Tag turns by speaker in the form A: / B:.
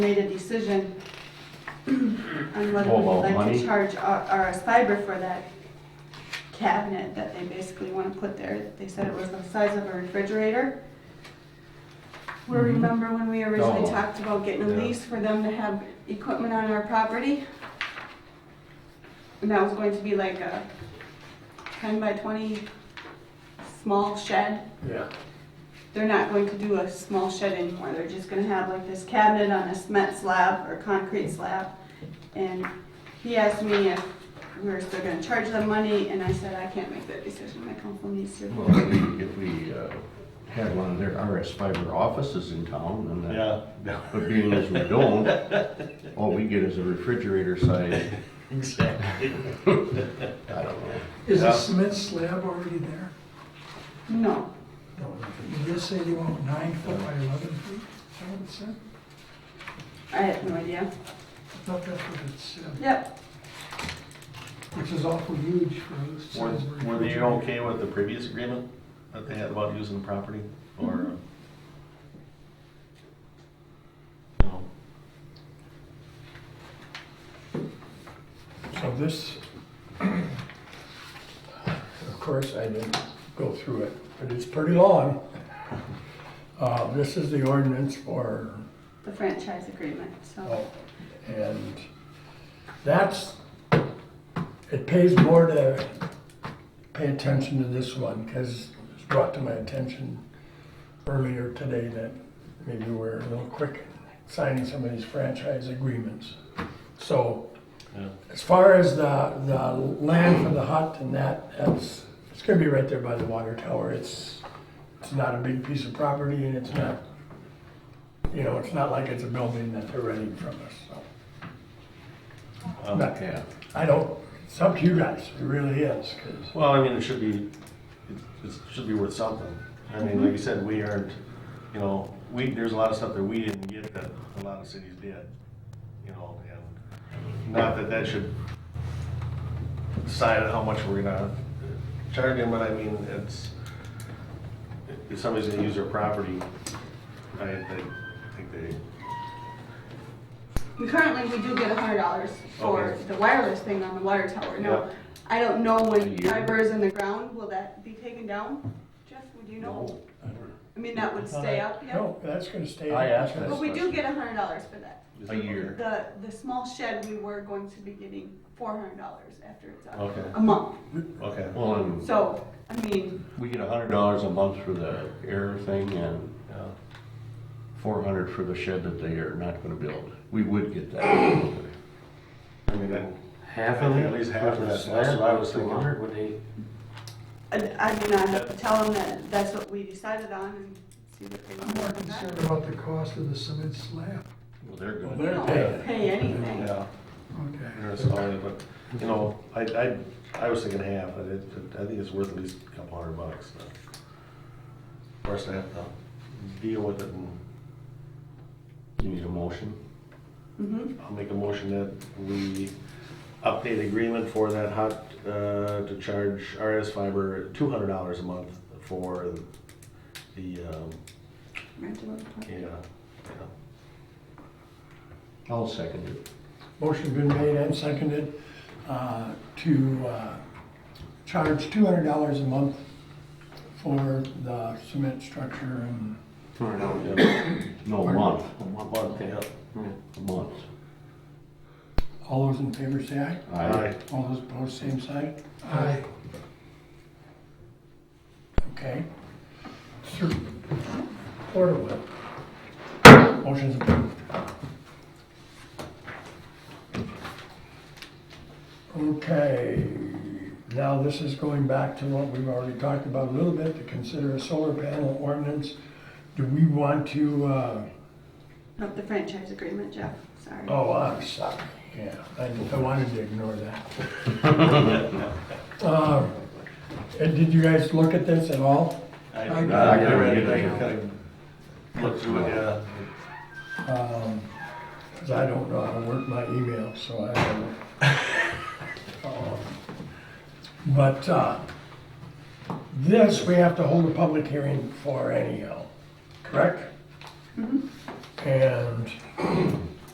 A: made a decision on whether
B: Oh,
A: we'd
B: about
A: like to
B: money?
A: charge R- RS Fiber for that cabinet that they basically want to put there. They said it was the size of a refrigerator. We
B: Mhm.
A: remember when we originally
B: Oh.
A: talked about getting a
B: Yeah.
A: lease for them to have equipment on our property? And that was going to be like a ten by twenty small shed.
C: Yeah,
A: They're not going to do a small shed anymore, they're just gonna have like this cabinet on a cement slab or concrete slab. And he asked me if we were still gonna charge them money, and I said, I can't make that decision, my council needs to.
D: Well, if we- if we uh, had one of their RS fiber offices in town, and that,
C: yeah, yeah,
D: but being as we don't, all we get is a refrigerator size,
C: exactly.
D: I don't know.
E: Is
C: Yeah.
E: the cement slab already there?
A: No,
E: No. Did they say they want nine foot by eleven feet? Is that what it said?
A: I had no idea,
E: I thought that's what it said,
A: yep,
E: which is awful huge for those.
C: Were, were they okay with the previous agreement that they had about using the property, or? uh, No,
F: So this, of course, I didn't go through it, but it's pretty long. Uh, This is the ordinance for,
A: the franchise agreement,
F: Oh.
A: so,
F: and that's, it pays more to pay attention to this one, because it was brought to my attention earlier today that maybe we're a little quick signing some of these franchise agreements. So
C: yeah,
F: as far as the, the land for the hut and that, that's, it's gonna be right there by the water tower. It's, it's not a big piece of property and it's not, you know, it's not like it's a building that they're renting from us, so.
C: um,
F: Not-
D: Yeah,
F: I don't, it's up to you guys, it really is, 'cause-
C: Well, I mean, it should be, it, it should be worth something. I mean, like you said, we aren't, you know, we, there's a lot of stuff that we didn't get that a lot of cities did, you know, and not that that should decide how much we're gonna charge them, but I mean, it's, if somebody's gonna use their property, I, I think they,
A: and currently, we do get a hundred dollars for
C: Okay.
A: the wireless thing on the water tower, now,
C: Yeah.
A: I don't know when
D: A year.
A: fiber is in the ground, will that be taken down? Jeff, would you know? I mean, that would stay up, yeah?
F: No, that's gonna stay.
D: I asked that.
A: But we do get a hundred dollars for that.
D: a year.
A: The, the small shed, we were going to be getting four hundred dollars after it's up,
C: Okay,
A: a month.
C: okay.
D: Well, and
A: So, I mean,
D: we get a hundred dollars a month for the air thing and
C: yeah.
D: four hundred for the shed that they are not gonna build. We would get that.
C: I mean, I-
G: Half
C: I
G: of
C: think
G: it?
C: at least half of that, that's
G: Slab
C: what I was
G: two
C: thinking.
G: hundred, Would they,
A: I, I do not have to tell them that that's what we decided on and see what they
E: I'm
A: want
E: more
A: more than that.
E: concerned about the cost of the cement slab.
D: Well, they're
F: Well,
D: gonna,
A: We
F: they're
A: don't
F: paying.
A: pay anything.
C: Yeah.
E: Okay.
C: Or something, but, you know, I, I, I was thinking half, but it, I think it's worth at least a couple hundred bucks. but Of course, I have to deal with it, and
D: you need a motion?
A: Mm-hmm,
C: I'll make a motion that we update agreement for that hot, uh, to charge RS Fiber two hundred dollars a month for the, um,
A: rental apartment.
C: yeah, yeah.
D: I'll second it.
F: Motion been made and seconded uh, to uh, charge two hundred dollars a month for the cement structure and
D: No, a month,
C: Yeah.
D: a month.
F: all those in favor say aye.
C: Aye.
F: All those opposed, same side?
E: Aye.
F: Okay. Sir, order what? Motion's approved. Okay, now this is going back to what we've already talked about a little bit, to consider a solar panel ordinance. Do we want to, uh,
A: Not the franchise agreement, Jeff, sorry.
F: Oh, I'm sorry, yeah, I, I wanted to ignore that. Um, And did you guys look at this at all?
C: I, uh,
E: I-
C: I kinda read it, I kinda looked through it, yeah.
F: Um 'cause cause I don't know how to work my email, so I don't. Um, But, uh, this, we have to hold a public hearing for anyhow, correct? And